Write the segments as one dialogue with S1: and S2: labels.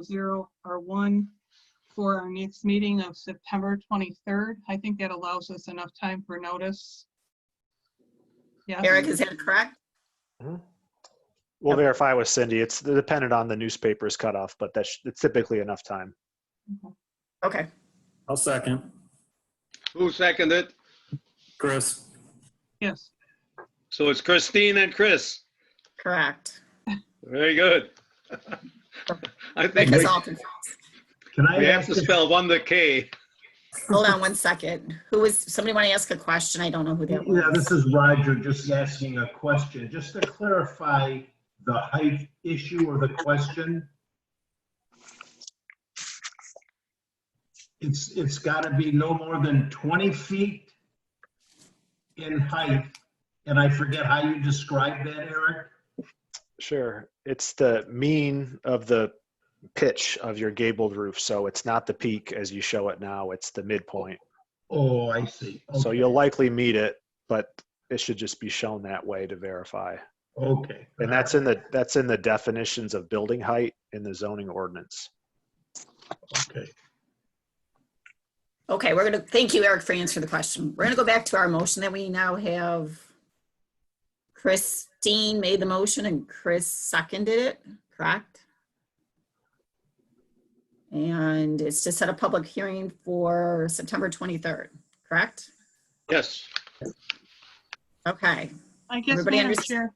S1: 007-000R1 for our next meeting of September 23rd. I think that allows us enough time for notice. Yes.
S2: Eric, is that correct?
S3: We'll verify with Cindy. It's dependent on the newspaper's cutoff, but that's, it's typically enough time.
S2: Okay,
S4: I'll second.
S5: Who seconded?
S4: Chris,
S1: Yes.
S5: So it's Christine and Chris.
S2: correct.
S5: Very good. I think
S2: Because
S5: we-
S2: all confused.
S6: Can I
S5: we have
S6: ask,
S5: to spell one the K.
S2: Hold on one second. Who was, somebody want to ask a question? I don't know who that
S6: yeah, this
S2: was.
S6: is Roger just asking a question, just to clarify the height issue or the question. It's, it's got to be no more than 20 feet in height, and I forget how you described that, Eric?
S3: Sure. It's the mean of the pitch of your gabled roof. So it's not the peak as you show it now, it's the midpoint.
S6: Oh, I see.
S3: So
S6: Okay.
S3: you'll likely meet it, but it should just be shown that way to verify.
S6: Okay.
S3: And that's in the, that's in the definitions of building height in the zoning ordinance.
S6: Okay.
S2: Okay, we're gonna, thank you, Eric, for answering the question. We're gonna go back to our motion that we now have. Christine made the motion and Chris seconded it, correct? And it's to set a public hearing for September 23rd, correct?
S5: Yes.
S2: Okay,
S1: I guess,
S2: Everybody
S1: Madam
S2: underst-
S1: Chair.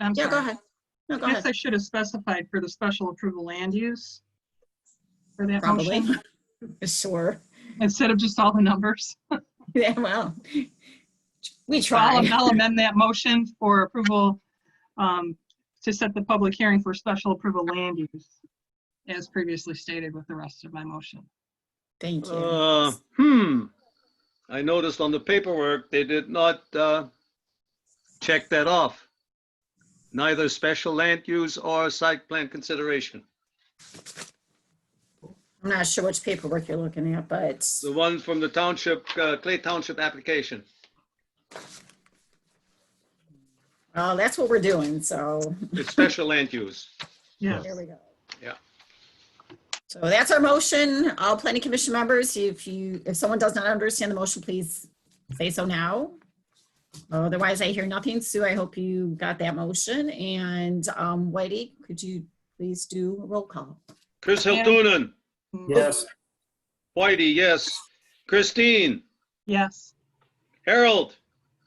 S1: I'm
S2: yeah, go
S1: sorry.
S2: ahead. No, go
S1: I guess
S2: ahead.
S1: I should have specified for the special approval land use for that
S2: Probably.
S1: motion,
S2: Sure.
S1: instead of just all the numbers.
S2: Yeah, well, we
S1: So I'll
S2: try.
S1: I'll amend that motion for approval um, to set the public hearing for special approval land use, as previously stated with the rest of my motion.
S2: Thank you.
S5: Uh, Hmm. I noticed on the paperwork, they did not uh, check that off. Neither special land use or site plan consideration.
S2: I'm not sure which paperwork you're looking at, but
S5: The one from the township, uh, Clay Township application.
S2: uh, that's what we're doing, so
S5: It's special land use.
S1: Yes.
S2: there we go.
S5: Yeah.
S2: So that's our motion. All planning commission members, if you, if someone does not understand the motion, please say so now. Otherwise, I hear nothing. Sue, I hope you got that motion. And um, Whitey, could you please do a roll call?
S5: Chris
S1: Yeah.
S5: Hiltunen,
S4: yes,
S5: Whitey, yes. Christine,
S1: Yes.
S5: Harold,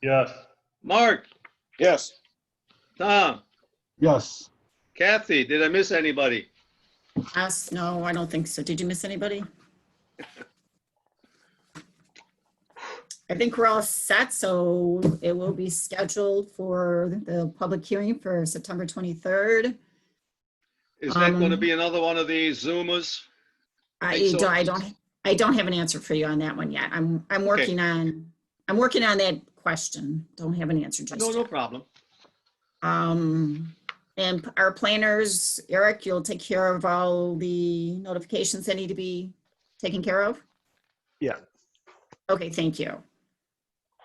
S6: Yes.
S5: Mark,
S7: Yes.
S5: Tom,
S6: Yes.
S5: Kathy, did I miss anybody?
S2: Us, no, I don't think so. Did you miss anybody? I think we're all set, so it will be scheduled for the public hearing for September 23rd.
S5: Is that going to
S2: Um,
S5: be another one of these Zoomers?
S2: I
S5: Think so.
S2: don't, I don't, I don't have an answer for you on that one yet. I'm, I'm working on, I'm working on that question. Don't have an answer just
S5: No, no
S2: yet.
S5: problem.
S2: Um, and our planners, Eric, you'll take care of all the notifications that need to be taken care of?
S3: Yeah.
S2: Okay, thank you.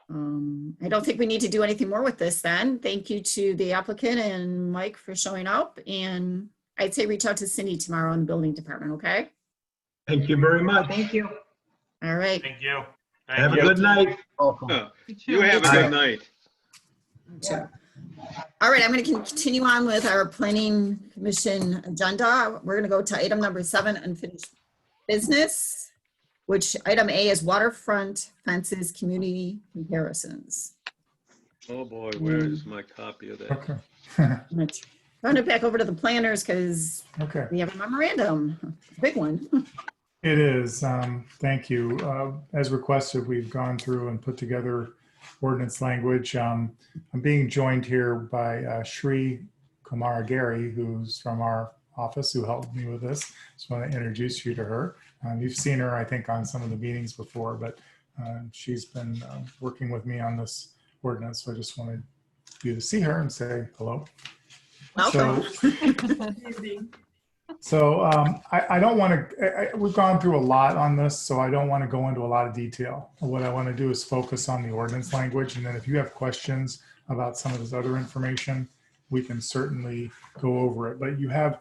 S2: Um, I don't think we need to do anything more with this then. Thank you to the applicant and Mike for showing up. And I'd say reach out to Cindy tomorrow in the building department, okay?
S6: Thank you very much.
S1: Thank you.
S2: All right.
S8: Thank you.
S6: Have
S8: Thank
S6: a
S8: you.
S6: good night.
S5: You have a
S2: Bye.
S5: good night.
S2: Sure. All right, I'm going to continue on with our planning commission agenda. We're going to go to item number seven, unfinished business, which item A is waterfront fences, community comparisons.
S5: Oh, boy, where is my copy of that?
S8: Okay,
S2: I'm going to Turn it back over to the planners because
S8: okay.
S2: we have a memorandum, big one.
S8: It is, um, thank you. Uh, as requested, we've gone through and put together ordinance language. Um, I'm being joined here by uh, Shri Kumara Gary, who's from our office, who helped me with this. Just want to introduce you to her. Um, you've seen her, I think, on some of the meetings before, but uh, she's been uh, working with me on this ordinance. So I just wanted you to see her and say hello.
S2: Welcome.
S8: So um, I, I don't want to, we've gone through a lot on this, so I don't want to go into a lot of detail. What I want to do is focus on the ordinance language, and then if you have questions about some of this other information, we can certainly go over it. But you have